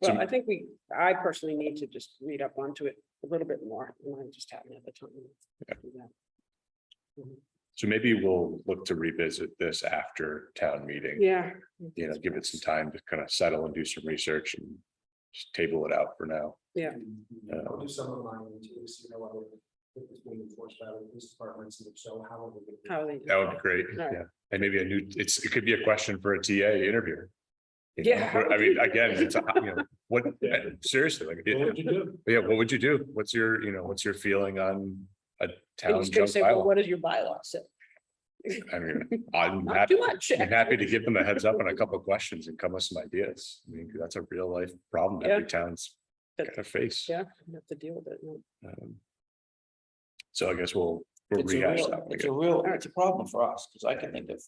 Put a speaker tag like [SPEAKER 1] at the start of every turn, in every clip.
[SPEAKER 1] Well,
[SPEAKER 2] So-
[SPEAKER 1] I think we, I personally need to just read up onto it a little bit more, and I just haven't had the time. to do that.
[SPEAKER 2] So maybe we'll look to revisit this after town meeting,
[SPEAKER 1] Yeah.
[SPEAKER 2] you know, give it some time to kind of settle and do some research and just table it out for now.
[SPEAKER 1] Yeah.
[SPEAKER 3] I'll do some of mine too, so you know, what it's being enforced by the police departments and if so how. are we gonna-
[SPEAKER 1] How they. do
[SPEAKER 2] That would be great,
[SPEAKER 1] Right.
[SPEAKER 2] yeah. And maybe a new, it's, it could be a question for a TA interviewer. You know,
[SPEAKER 1] Yeah, how
[SPEAKER 2] I
[SPEAKER 1] would
[SPEAKER 2] mean,
[SPEAKER 1] you-
[SPEAKER 2] again, it's, a you know, what, seriously, like,
[SPEAKER 3] What
[SPEAKER 2] it-
[SPEAKER 3] would you do?
[SPEAKER 2] yeah, what would you do? What's your, you know, what's your feeling on a
[SPEAKER 1] I
[SPEAKER 2] town
[SPEAKER 1] was gonna
[SPEAKER 2] junk
[SPEAKER 1] say, well,
[SPEAKER 2] bylaw?
[SPEAKER 1] what does your bylaw say?
[SPEAKER 2] I mean, I'm
[SPEAKER 1] Not
[SPEAKER 2] happy,
[SPEAKER 1] too much.
[SPEAKER 2] I'm happy to give them a heads up on a couple of questions and come with some ideas. I mean, that's a real life problem that every town's
[SPEAKER 1] That-
[SPEAKER 2] got to face.
[SPEAKER 1] Yeah, you have to deal with it. no.
[SPEAKER 2] Um, So I guess we'll, we'll
[SPEAKER 4] It's a
[SPEAKER 2] rehash
[SPEAKER 4] real,
[SPEAKER 2] that. one
[SPEAKER 4] it's a
[SPEAKER 2] again.
[SPEAKER 4] real, it's a problem for us, because I can think of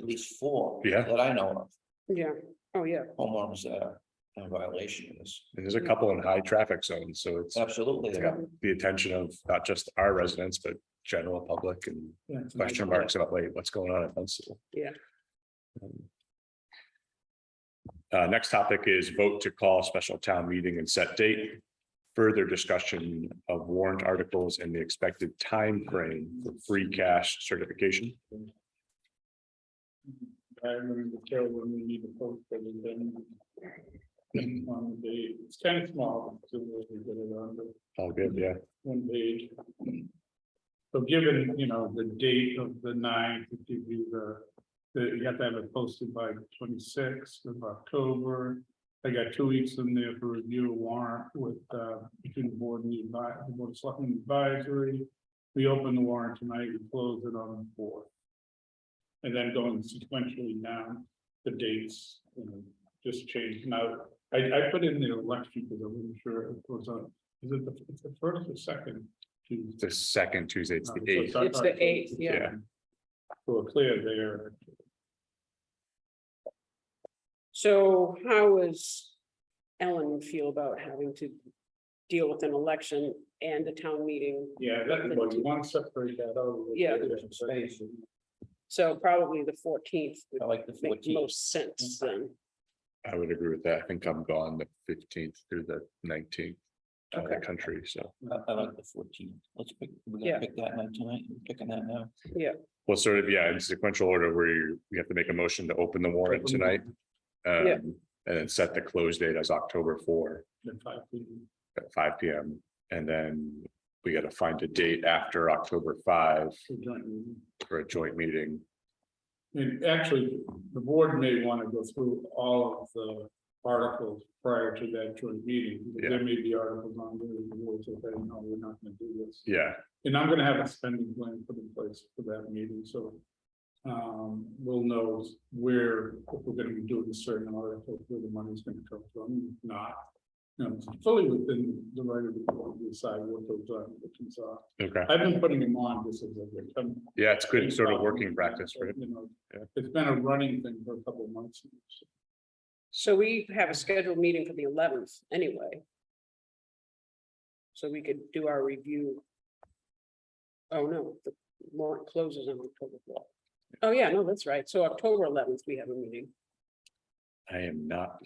[SPEAKER 4] at least four.
[SPEAKER 2] Yeah.
[SPEAKER 4] That I know
[SPEAKER 1] Yeah, oh, yeah,
[SPEAKER 4] of, homeowners that are in violation of this,
[SPEAKER 2] And There's a couple in high traffic zones, so it's
[SPEAKER 4] absolutely.
[SPEAKER 2] got the attention of not just our residents, but general public and question marks about, wait, what's going on at Dunstable?
[SPEAKER 1] Yeah.
[SPEAKER 2] Um, Uh, next topic is vote to call special town meeting and set date. Further discussion of warrant articles and the expected time frame for free cash certification.
[SPEAKER 3] I remember Carol when we need to post for the thing. On the day, it's kind of small, so we can get it on, but
[SPEAKER 2] All good, yeah.
[SPEAKER 3] one page. So given, you know, the date of the ninth, it gives you the, the, you have to have it posted by twenty-sixth of October. I got two weeks in there for review of warrant with, uh, between the board and the advi- the board of selectmen advisory. We open the warrant tonight, we close it on the fourth. And then going sequentially down the dates, you know, just change. Now, I, I put in the election because I wasn't sure if it was on, is it the, it's the first or second Tuesday?
[SPEAKER 2] The second Tuesday, it's the
[SPEAKER 3] No,
[SPEAKER 2] eighth.
[SPEAKER 3] not-
[SPEAKER 1] It's the eighth, yeah.
[SPEAKER 2] Yeah.
[SPEAKER 3] So we're clear there.
[SPEAKER 1] so how is Ellen feel about having to deal with an election and a town meeting?
[SPEAKER 3] Yeah, that, well, you want to separate that out.
[SPEAKER 1] Yeah.
[SPEAKER 3] Space.
[SPEAKER 1] So probably the fourteenth
[SPEAKER 2] Oh,
[SPEAKER 4] I
[SPEAKER 1] would
[SPEAKER 4] like the
[SPEAKER 1] make
[SPEAKER 4] fourteen,
[SPEAKER 1] most sense then.
[SPEAKER 2] I would agree with that. I think I'm gone the fifteenth through the nineteenth of the
[SPEAKER 1] Okay.
[SPEAKER 2] country, so
[SPEAKER 4] I, I like the fourteen, let's pick, we're
[SPEAKER 1] Yeah.
[SPEAKER 4] gonna pick that night tonight, we're picking that now.
[SPEAKER 2] we'll sort of, yeah, in sequential order where you, we have to make a motion to open the warrant tonight.
[SPEAKER 1] Yeah.
[SPEAKER 2] Um, and then set the close date as October four
[SPEAKER 3] The five people.
[SPEAKER 2] at five P M. And then we gotta find a date after October five
[SPEAKER 3] for joint meeting.
[SPEAKER 2] for a joint meeting.
[SPEAKER 3] And actually, the board may want to go through all of the articles prior to that joint meeting. because There may be articles on there, that the board said, "Hey, no, we're not going to do this.
[SPEAKER 2] Yeah,
[SPEAKER 3] And I'm gonna have a spending plan put in place for that meeting, so. Um, we'll know where, if we're gonna be doing a certain article, where the money's gonna come from, if not. You know, it's fully within the right of the board to decide what those articles are.
[SPEAKER 2] okay.
[SPEAKER 3] I've been putting them on just as I've come.
[SPEAKER 2] Yeah, it's good sort of working practice, right?
[SPEAKER 3] You know,
[SPEAKER 2] Yeah.
[SPEAKER 3] It's been a running thing for a couple of months.
[SPEAKER 1] So we have a scheduled meeting for the eleventh anyway. So we could do our review. Oh, no, the warrant closes on October fourth. Oh, yeah, no, that's right. So October eleventh, we have a meeting.
[SPEAKER 2] I am not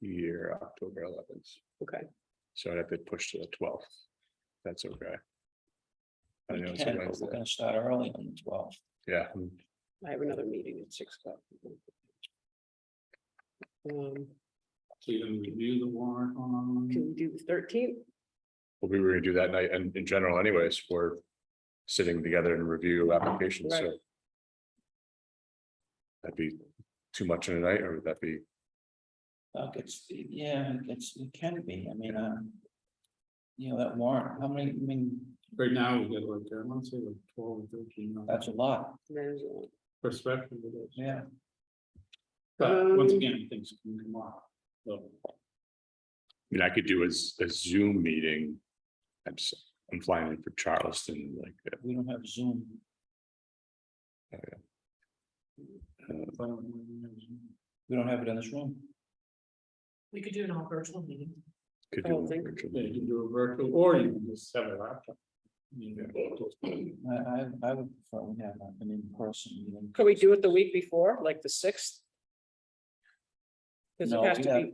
[SPEAKER 2] here October eleventh,
[SPEAKER 1] Okay,
[SPEAKER 2] so I'd have to push to the twelfth. That's okay. I
[SPEAKER 4] We
[SPEAKER 2] know it's a
[SPEAKER 4] can, but We're
[SPEAKER 2] Wednesday.
[SPEAKER 4] gonna start early on the twelfth,
[SPEAKER 2] Yeah, I'm
[SPEAKER 1] I have another meeting at six o'clock. Um,
[SPEAKER 3] So you're gonna review the warrant
[SPEAKER 1] can
[SPEAKER 3] on,
[SPEAKER 1] we do the thirteenth?
[SPEAKER 2] Well, we were gonna do that night and in general anyways, for sitting together and review applications, so.
[SPEAKER 1] Right.
[SPEAKER 2] That'd be too much in a night, or would that be,
[SPEAKER 4] uh, it's, yeah, it's, it can be, I mean, uh. You know, that warrant, how many, I mean,
[SPEAKER 3] right now, we got like, I want to say like twelve or thirteen. on
[SPEAKER 4] that's a lot,
[SPEAKER 3] Perspective of it.
[SPEAKER 4] yeah.
[SPEAKER 3] But once
[SPEAKER 1] Um,
[SPEAKER 3] again, things can come off. So,
[SPEAKER 2] I mean, I could do a s- a Zoom meeting. I'm s- I'm flying in for Charleston like that.
[SPEAKER 4] We don't have Zoom.
[SPEAKER 2] Oh, uh,
[SPEAKER 3] if I don't know, you know,
[SPEAKER 4] We don't have it in this room.
[SPEAKER 1] We could do an all virtual meeting.
[SPEAKER 2] could
[SPEAKER 1] I
[SPEAKER 2] do
[SPEAKER 1] don't
[SPEAKER 2] a
[SPEAKER 1] think-
[SPEAKER 2] virtual
[SPEAKER 3] Yeah, you
[SPEAKER 2] meeting.
[SPEAKER 3] can do a virtual, or you can just have a laptop. You know,
[SPEAKER 4] I, I, I would prefer we have an in-person meeting.
[SPEAKER 1] Could we do it the week before, like the sixth? Because
[SPEAKER 4] No,
[SPEAKER 1] it has
[SPEAKER 4] we
[SPEAKER 1] to
[SPEAKER 4] have-
[SPEAKER 1] be.